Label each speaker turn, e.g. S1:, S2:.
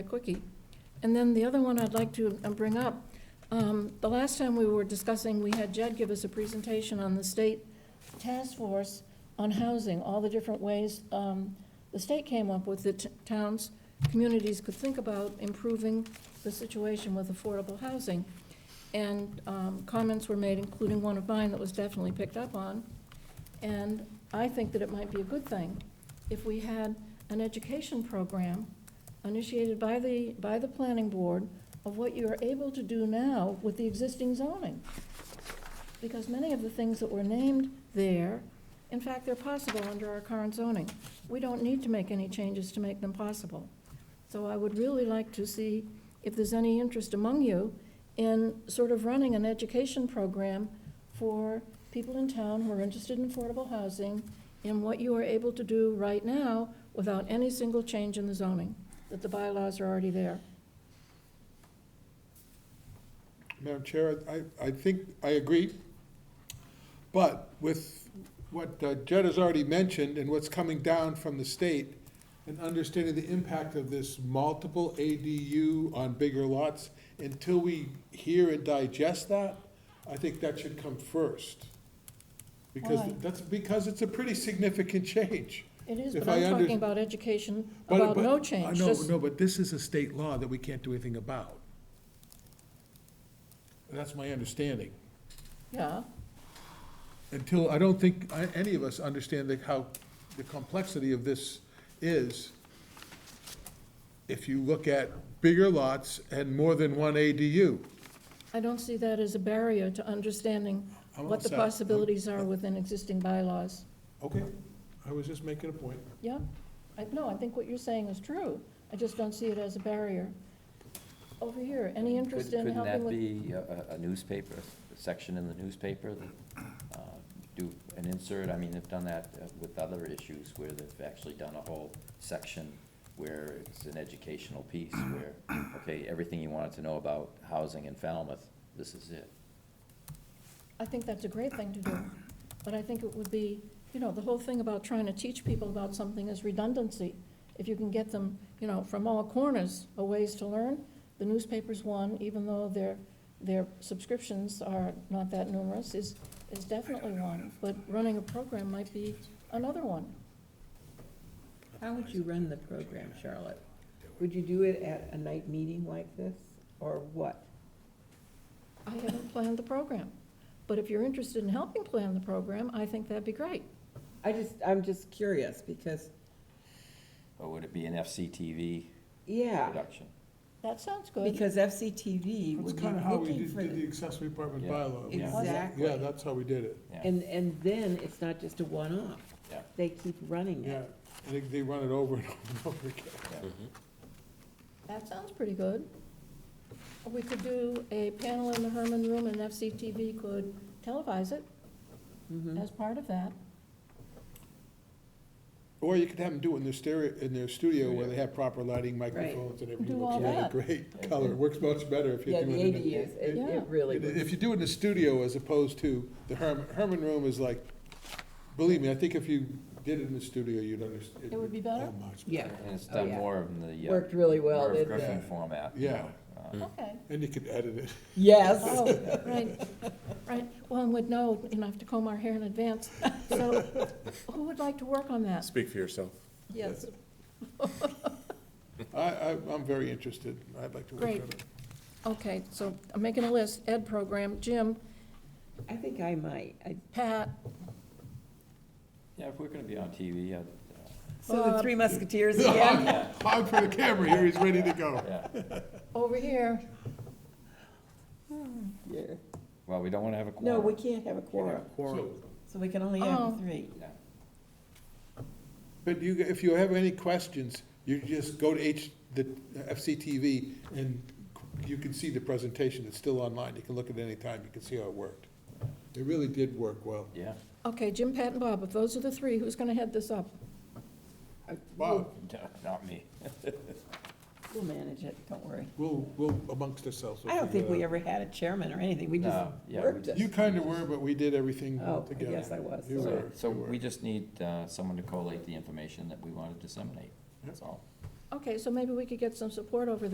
S1: A Quickie. And then the other one I'd like to uh, bring up, um, the last time we were discussing, we had Jed give us a presentation on the state task force on housing, all the different ways um, the state came up with that t- towns, communities could think about improving the situation with affordable housing. And um, comments were made, including one of mine that was definitely picked up on. And I think that it might be a good thing if we had an education program initiated by the, by the planning board of what you're able to do now with the existing zoning. Because many of the things that were named there, in fact, they're possible under our current zoning. We don't need to make any changes to make them possible. So I would really like to see if there's any interest among you in sort of running an education program for people in town who are interested in affordable housing in what you are able to do right now without any single change in the zoning that the bylaws are already there.
S2: Madam Chair, I, I think, I agree. But with what uh, Jed has already mentioned and what's coming down from the state, and understanding the impact of this multiple ADU on bigger lots, until we hear and digest that, I think that should come first. Because
S1: Why?
S2: that's, because it's a pretty significant change.
S1: It is,
S2: If
S1: but I'm
S2: I under-
S1: talking about education,
S2: But-
S1: about
S2: but-
S1: no
S2: I
S1: change,
S2: know,
S1: just,
S2: no, but this is a state law that we can't do anything about. That's my understanding.
S1: yeah.
S2: until, I don't think I- any of us understand the, how, the complexity of this is. If you look at bigger lots and more than one ADU.
S1: I don't see that as a barrier to understanding
S2: I'm
S1: what the
S2: all set.
S1: possibilities are within existing bylaws.
S2: Okay, I was just making a point.
S1: Yeah, I, no, I think what you're saying is true, I just don't see it as a barrier. Over here, any
S3: Couldn't-
S1: interest in helping with?
S3: Couldn't that be a- a a newspaper, a section in the newspaper, that, uh, do an insert? I mean, they've done that uh, with other issues where they've actually done a whole section where it's an educational piece where, okay, everything you wanted to know about housing in Falmouth, this is it.
S1: I think that's a great thing to do, but I think it would be, you know, the whole thing about trying to teach people about something is redundancy. If you can get them, you know, from all corners, a ways to learn, the newspaper's one, even though their, their subscriptions are not that numerous, is, is definitely one. But running a program might be another one.
S4: How would you run the program, Charlotte? Would you do it at a night meeting like this, or what?
S1: I haven't planned the program, but if you're interested in helping plan the program, I think that'd be great.
S4: I just, I'm just curious, because,
S3: Or would it be an FCTV
S4: yeah,
S3: production?
S1: That sounds good.
S4: because FCTV
S2: That's
S4: would be
S2: kind of how we
S4: looking
S2: did,
S4: for,
S2: did the
S4: the-
S2: accessory apartment
S3: Yeah.
S2: bylaw. We-
S4: Exactly.
S2: Yeah, that's how we did it,
S3: Yeah,
S4: and, and then it's not just a one-off.
S3: Yeah.
S4: They keep running
S2: yeah.
S4: it.
S2: I think they run it over and over and over again.
S3: Mm-hmm.
S1: That sounds pretty good. We could do a panel in the Herman Room and FCTV could televise it
S4: Mhm.
S1: as part of that.
S2: Or you could have them do it in their stereo, in their studio where they have proper lighting,
S4: Right.
S2: microphones and everything.
S1: Do
S2: looks
S1: all
S2: really
S1: that.
S2: Great color, It works much better if you do
S4: Yeah,
S2: it
S4: the
S2: in a-
S4: ADUs, it,
S1: Yeah.
S4: it really
S2: If if
S4: would.
S2: you do it in the studio as opposed to the Herman, Herman room is like, believe me, I think if you did it in the studio, you'd understand.
S1: It would be better?
S4: Yeah,
S3: and it's
S4: Oh,
S3: done
S4: yeah.
S3: more in the. uh,
S4: worked really well,
S3: Merv
S4: didn't
S3: Griffin
S4: it?
S3: format. you
S2: Yeah.
S3: know, uh,
S1: Okay.
S2: And you could edit it.
S4: Yes,
S1: Oh, right, right. Well, and would know, you know, I have to comb our hair in advance. So who would like to work on that?
S5: Speak for yourself.
S1: Yes,
S2: I, I, I'm very interested. I'd like to work on
S1: Great.
S2: it.
S1: okay, so I'm making a list. Ed program, Jim,
S4: I think I might. I-
S1: Pat,
S3: Yeah, if we're gonna be on TV, I'd, uh,
S4: So the
S1: Bob.
S4: Three Musketeers again?
S2: I'm for the camera here, he's ready to go.
S3: yeah.
S1: over here.
S4: Yeah.
S3: Well, we don't wanna have a quorum.
S4: No, we can't have a quorum,
S2: So,
S4: so we can only
S1: Oh.
S4: have three.
S3: Yeah.
S2: But you, if you have any questions, you just go to H, the FCTV and you can see the presentation. It's still online. You can look at it anytime. You can see how it worked. It really did work well.
S3: Yeah.
S1: Okay, Jim, Pat, and Bob, if those are the three, who's gonna head this up?
S4: I-
S2: Bob,
S3: No, Not me.
S4: We'll we'll manage it, don't worry.
S2: we'll, we'll amongst ourselves. we'll
S4: I don't
S2: figure
S4: think
S2: that out.
S4: we ever had a chairman or anything, we just
S3: No, yeah, we
S4: worked
S3: just-
S2: You
S4: it.
S2: kind of were, but we did everything
S4: Oh, I
S2: together.
S4: guess I was.
S2: You
S4: sorry.
S2: were.
S3: So we just need uh, someone to collate the information that we want to disseminate, that's all.
S1: Okay, so maybe we could get some support over there.